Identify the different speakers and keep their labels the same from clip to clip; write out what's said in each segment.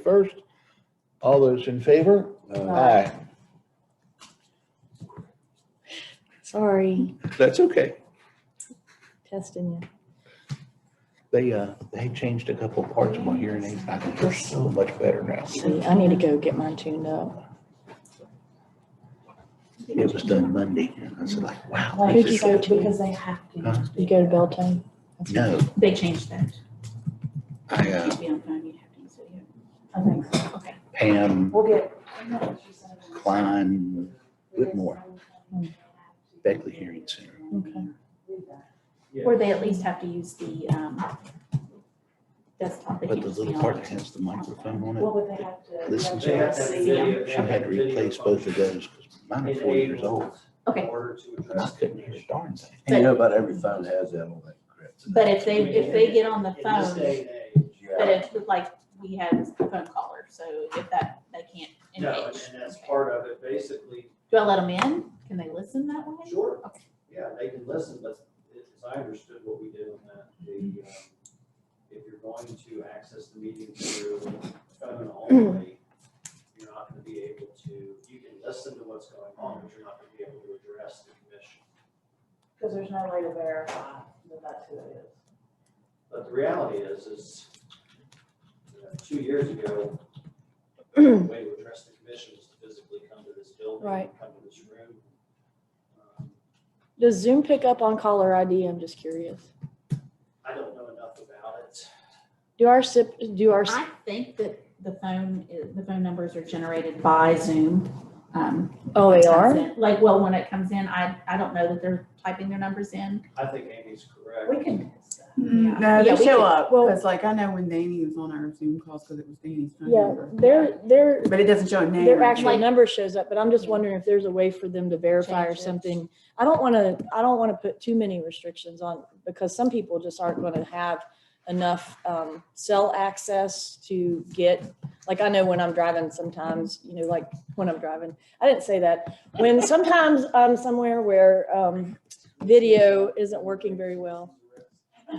Speaker 1: first. All those in favor?
Speaker 2: Aye.
Speaker 3: Sorry,
Speaker 1: That's okay.
Speaker 3: testing you.
Speaker 1: They, uh, they changed a couple of parts of my hearing aids. I can hear so much better now.
Speaker 3: See, I need to go get mine tuned up.
Speaker 1: It was done Monday. and I said like, wow.
Speaker 4: Like,
Speaker 3: Who'd
Speaker 1: this
Speaker 3: you
Speaker 1: is-
Speaker 3: go to?
Speaker 4: Because they have
Speaker 1: Huh?
Speaker 4: to.
Speaker 3: You go to Beltane?
Speaker 1: No,
Speaker 4: They changed that.
Speaker 1: I, uh,
Speaker 4: To be on time, you have to use video. I think so, okay.
Speaker 1: Pam
Speaker 4: We'll get.
Speaker 1: Klein Whitmore, Beckley Hearing Center.
Speaker 3: Okay.
Speaker 4: Or they at least have to use the, um, desktop. They
Speaker 1: But
Speaker 4: can't
Speaker 1: the
Speaker 4: just be
Speaker 1: little
Speaker 4: on-
Speaker 1: part that has the microphone on it,
Speaker 4: What would they have to?
Speaker 1: Listen to
Speaker 4: they have
Speaker 1: it.
Speaker 4: see them?
Speaker 1: I had to replace both of those because mine are four years old
Speaker 4: Okay.
Speaker 1: and I couldn't hear a darn thing.
Speaker 5: And you know, about every phone has that on that crap.
Speaker 4: But if they, if they get on the phone, but
Speaker 5: Yeah,
Speaker 4: if, like, we had a phone caller, so if that, they can't
Speaker 6: No, and
Speaker 4: engage.
Speaker 6: and that's
Speaker 4: Okay.
Speaker 6: part of it, basically,
Speaker 4: Do I let them in? Can they listen that way?
Speaker 6: sure,
Speaker 4: Okay.
Speaker 6: yeah, they can listen, but as I understood what we did on that, the, um, if you're going to access the meeting through phone only, you're not gonna be able to, you can listen to what's going on, but you're not gonna be able to address the commission.
Speaker 7: Because there's no way to verify that that's who it is.
Speaker 6: But the reality is, is, you know, two years ago, the way to address the commission was to physically come to this building,
Speaker 3: Right.
Speaker 6: come to this room. Um,
Speaker 3: Does Zoom pick up on caller ID? I'm just curious.
Speaker 6: I don't know enough about it.
Speaker 3: Do our SIP, do our,
Speaker 4: I think that the phone, is- the phone numbers are generated by Zoom. um,
Speaker 3: oh, they
Speaker 4: comes
Speaker 3: are?
Speaker 4: in- Like, well, when it comes in, I, I don't know that they're typing their numbers in.
Speaker 6: I think Amy's correct.
Speaker 4: We can.
Speaker 8: Mm,
Speaker 4: Yeah,
Speaker 8: No, they
Speaker 4: we
Speaker 8: show
Speaker 4: could-
Speaker 8: up,
Speaker 3: well-
Speaker 8: because like I know when Danny was on our Zoom calls, because it was Danny's phone
Speaker 3: Yeah,
Speaker 8: number.
Speaker 3: their, their,
Speaker 8: But it doesn't show a name.
Speaker 3: their
Speaker 8: or
Speaker 3: actual
Speaker 8: anything.
Speaker 3: number shows up, but I'm just wondering if there's a way for them to verify or
Speaker 4: Change it.
Speaker 3: something. I don't want to, I don't want to put too many restrictions on, because some people just aren't going to have enough um, cell access to get, like, I know when I'm driving sometimes, you know, like, when I'm driving, I didn't say that. When sometimes I'm somewhere where um, video isn't working very well.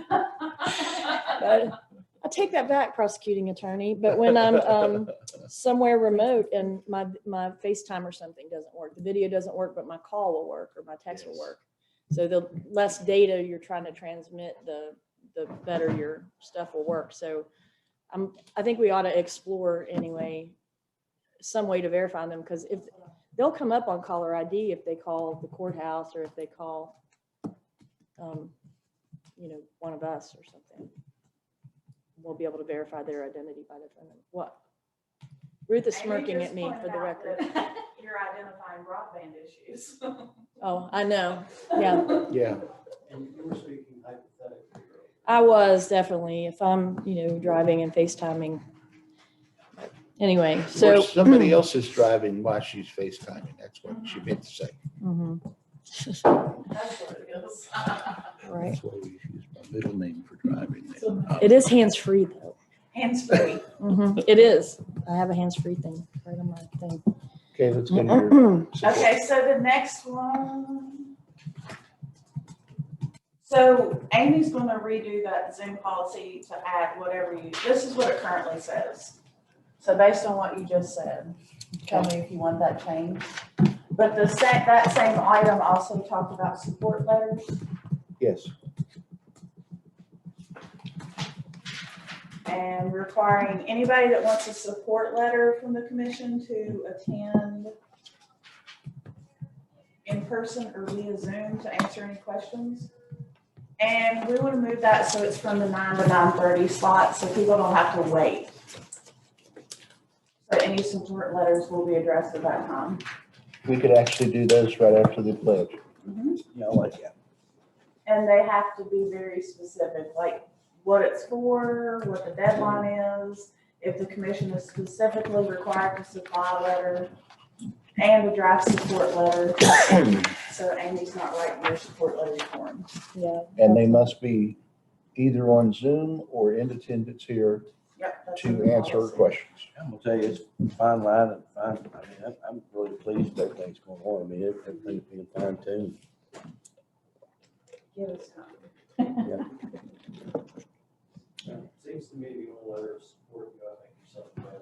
Speaker 3: But I take that back, prosecuting attorney, but when I'm um, somewhere remote and my, my FaceTime or something doesn't work, the video doesn't work, but my call will work or my text will
Speaker 6: Yes.
Speaker 3: work. So the less data you're trying to transmit, the, the better your stuff will work. So I'm, I think we ought to explore anyway, some way to verify them, because if, they'll come up on caller ID if they call the courthouse or if they call, um, you know, one of us or something. We'll be able to verify their identity by their phone. number. What? Ruth is
Speaker 7: And you
Speaker 3: smirking
Speaker 7: just
Speaker 3: at me for
Speaker 7: pointed
Speaker 3: the
Speaker 7: out
Speaker 3: record.
Speaker 7: that You're identifying broadband issues.
Speaker 3: Oh, I know. Yeah,
Speaker 1: Yeah.
Speaker 6: And you were speaking hypothetically.
Speaker 3: I was definitely, if I'm, you know, driving and FaceTiming. But Anyway,
Speaker 1: Or
Speaker 3: so.
Speaker 1: somebody else is driving while she's FaceTiming. That's what she meant to say.
Speaker 3: Mhm,
Speaker 7: That's what it is.
Speaker 3: Right.
Speaker 1: That's why we use my middle name for driving.
Speaker 3: It is hands-free though.
Speaker 7: Hands free.
Speaker 3: Mhm, It is. I have a hands-free thing right on my thing.
Speaker 1: Okay, let's get your.
Speaker 7: Okay, so the next one. So Amy's gonna redo that Zoom policy to add whatever you, this is what it currently says. So based on what you just said, tell me if you want that changed. But the sa- that same item also talked about support letters.
Speaker 1: Yes.
Speaker 7: And requiring anybody that wants a support letter from the commission to attend in person or via Zoom to answer any questions. And we want to move that so it's from the nine to nine thirty slot, so people don't have to wait. So any support letters will be addressed at that time.
Speaker 1: We could actually do this right after the pledge.
Speaker 5: I like that.
Speaker 7: And they have to be very specific, like what it's for, what the deadline is, if the commission is specifically required to supply a letter and a draft support letter. So Amy's not writing your support letter form.
Speaker 3: Yeah.
Speaker 1: And they must be either on Zoom or in attendance here
Speaker 7: Yep. that's in
Speaker 1: to
Speaker 7: the
Speaker 1: answer
Speaker 7: policy.
Speaker 1: questions.
Speaker 5: I'm gonna tell you, it's a fine line and fine, I mean, I'm, I'm really pleased that everything's going on. I mean, everything's being fine tuned.
Speaker 7: Give us time.
Speaker 6: Seems to me the old letter of support, you, I think, yourself.